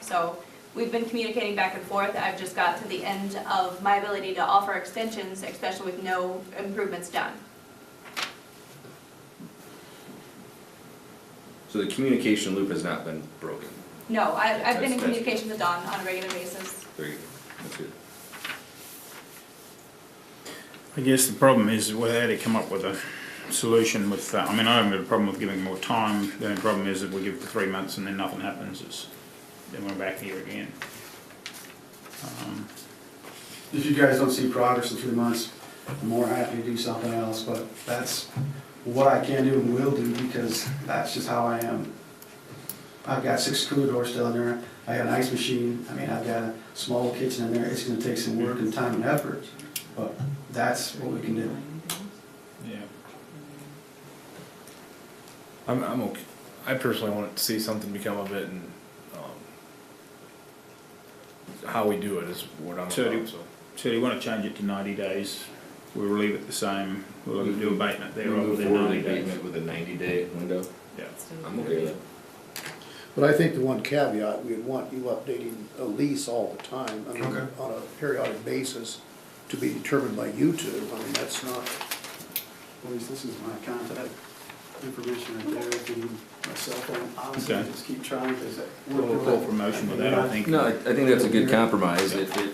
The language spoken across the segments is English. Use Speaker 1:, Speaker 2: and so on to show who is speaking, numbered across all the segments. Speaker 1: So we've been communicating back and forth. I've just got to the end of my ability to offer extensions, especially with no improvements done.
Speaker 2: So the communication loop has not been broken.
Speaker 1: No, I, I've been in
Speaker 2: That's- that's-
Speaker 1: communication with Don on a regular basis.
Speaker 2: There you go. That's good.
Speaker 3: I guess the problem is whether they come up with a solution with that. I mean, I haven't got a problem with giving more time. The only problem is that we give for three months and then nothing happens. It's, then we're back here again. Um,
Speaker 4: If you guys don't see progress in three months, I'm more happy to do something else, but that's what I can do and will do because that's just how I am. I've got six cooler doors still in there, I got an ice machine, I mean, I've got a small kitchen in there, it's gonna take some work and time and effort, but that's what we can do.
Speaker 3: yeah.
Speaker 5: I'm, I'm okay. I personally want to see something become of it and, um, how we do it is what I'm
Speaker 3: So do-
Speaker 5: about, so.
Speaker 3: So do you want to change it to 90 days? We'll leave it the same. We'll do abatement there
Speaker 2: We
Speaker 3: rather
Speaker 2: move
Speaker 3: than
Speaker 2: forward
Speaker 3: 90
Speaker 2: with the
Speaker 3: days.
Speaker 2: abatement with a ninety day window.
Speaker 3: Yeah.
Speaker 2: I'm okay with that.
Speaker 6: But I think the one caveat, we'd want you updating a lease all the time, I mean, uh,
Speaker 4: Okay.
Speaker 6: on a periodic basis, to be determined by you two, I mean, that's not,
Speaker 4: Please, this is my contact information right there, if you, my cell phone, obviously,
Speaker 3: Okay.
Speaker 4: just keep trying, because
Speaker 3: We'll call for motion with that, I think.
Speaker 2: No, I I think that's a good compromise. It, it,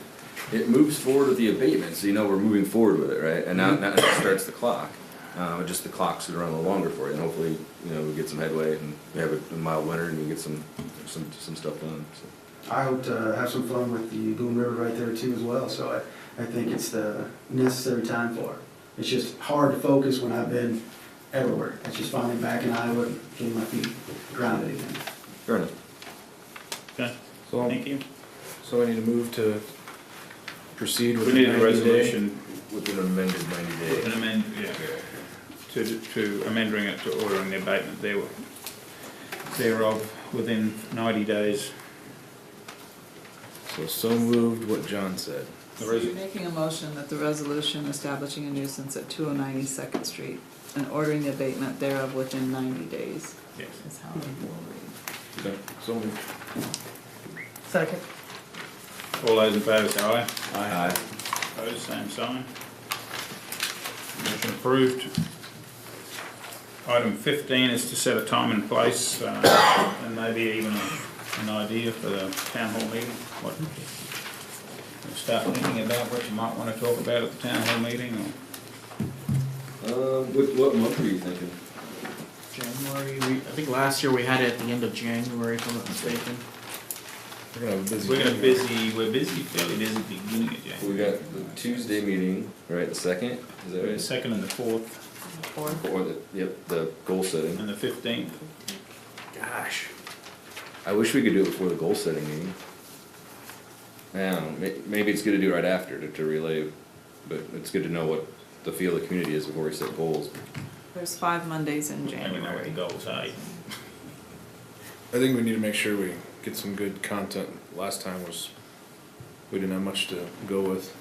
Speaker 2: it moves forward with the abatement, so you know we're moving forward with it, right? And now, now it starts the clock. Uh, just the clocks would run a little longer for you, and hopefully, you know, we get some headway and we have a mild winter and we get some, some, some stuff done, so.
Speaker 4: I hope to have some fun with the Boone River right there too as well, so I, I think it's the necessary time for it. It's just hard to focus when I've been everywhere. It's just finally back in Iowa and getting my feet grounded again.
Speaker 2: Fair enough.
Speaker 3: Okay,
Speaker 5: So,
Speaker 3: thank you.
Speaker 5: so I need to move to proceed with
Speaker 3: We
Speaker 5: the
Speaker 3: need a
Speaker 5: ninety day.
Speaker 3: resolution,
Speaker 2: With an amended ninety day.
Speaker 3: an amend, yeah. to, to amending it to ordering the abatement there, thereof within ninety days.
Speaker 5: So, so moved what John said.
Speaker 3: The
Speaker 7: So you're
Speaker 3: reason-
Speaker 7: making a motion that the resolution establishing a nuisance at 209 East Second Street and ordering the abatement thereof within 90 days
Speaker 3: Yes.
Speaker 7: is how it will
Speaker 5: Okay, So moved.
Speaker 7: read. Second.
Speaker 3: All those in favour say aye.
Speaker 2: Aye.
Speaker 3: Opposed, same sign. Motion approved. Item fifteen is to set a time and place, uh, and maybe even an idea for the town hall meeting. What, we'll start thinking about what you might wanna talk about at the town hall meeting, or
Speaker 2: Um, what, what month were you thinking?
Speaker 8: January, we, I think last year we had it at the end of January, if I'm not mistaken.
Speaker 5: We're gonna have a busy.
Speaker 3: we're gonna
Speaker 5: meeting.
Speaker 3: busy, we're busy, fairly busy beginning of January.
Speaker 2: We got the Tuesday meeting, right, the second, is
Speaker 3: The
Speaker 2: that
Speaker 3: second and the fourth
Speaker 7: Or
Speaker 2: right? Or the, yep, the goal setting.
Speaker 3: and the fifteenth.
Speaker 5: Gosh.
Speaker 2: I wish we could do it before the goal setting meeting. I don't know, may- maybe it's good to do it right after to, to relay, but it's good to know what the feel of the community is before we set goals.
Speaker 7: there's five Mondays in
Speaker 3: And we know what the
Speaker 7: January.
Speaker 3: goals are.
Speaker 5: I think we need to make sure we get some good content. Last time was, we didn't have much to go with.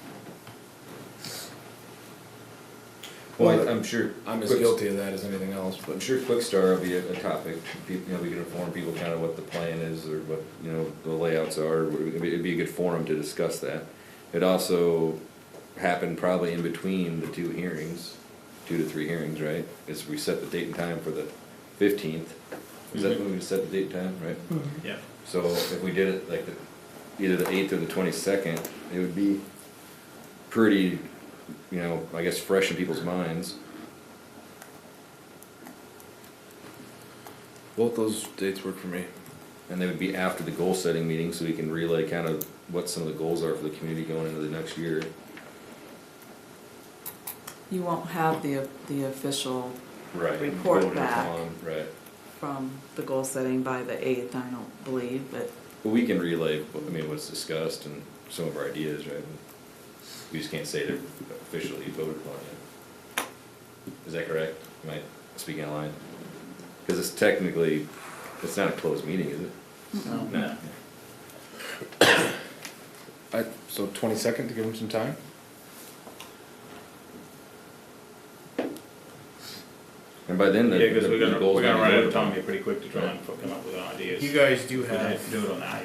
Speaker 2: Well, I- I'm sure.
Speaker 5: I'm as
Speaker 2: Quick-
Speaker 5: guilty of that as anything else,
Speaker 2: I'm
Speaker 5: but
Speaker 2: sure Quickstar will be a, a topic, people, you know, we can inform people kind of what the plan is or what, you know, the layouts are, it'd be, it'd be a good forum to discuss that. It also happened probably in between the two hearings, two to three hearings, right? Is we set the date and time for the fifteenth, is that when we set the date and time, right?
Speaker 3: Yep.
Speaker 2: So if we did it like the, either the eighth or the twenty-second, it would be pretty, you know, I guess fresh in people's minds.
Speaker 5: both those dates work for me.
Speaker 2: And they would be after the goal setting meeting, so we can relay kind of what some of the goals are for the community going into the next year.
Speaker 7: You won't have the, the official
Speaker 2: Right.
Speaker 7: Report back.
Speaker 2: Right,
Speaker 7: from the goal setting by the 8th, I don't believe, but
Speaker 2: but we can relay, what- I mean, what's discussed and some of our ideas, right? We just can't say they're officially voted upon yet. Is that correct? Am I speaking out line? Because it's technically, it's not a closed meeting, is it?
Speaker 7: Mm-hmm.
Speaker 3: No.
Speaker 5: I, so twenty-second to give them some time?
Speaker 2: And by then, the,
Speaker 3: Yeah, because
Speaker 2: the
Speaker 3: we're
Speaker 2: the
Speaker 3: gonna,
Speaker 2: goals.
Speaker 3: we're gonna
Speaker 2: might be
Speaker 3: run out
Speaker 2: voted
Speaker 3: of
Speaker 2: upon.
Speaker 3: time here pretty quick to try and come up with ideas.
Speaker 8: You guys do
Speaker 3: We'd
Speaker 8: have
Speaker 3: have to do it on the eighth.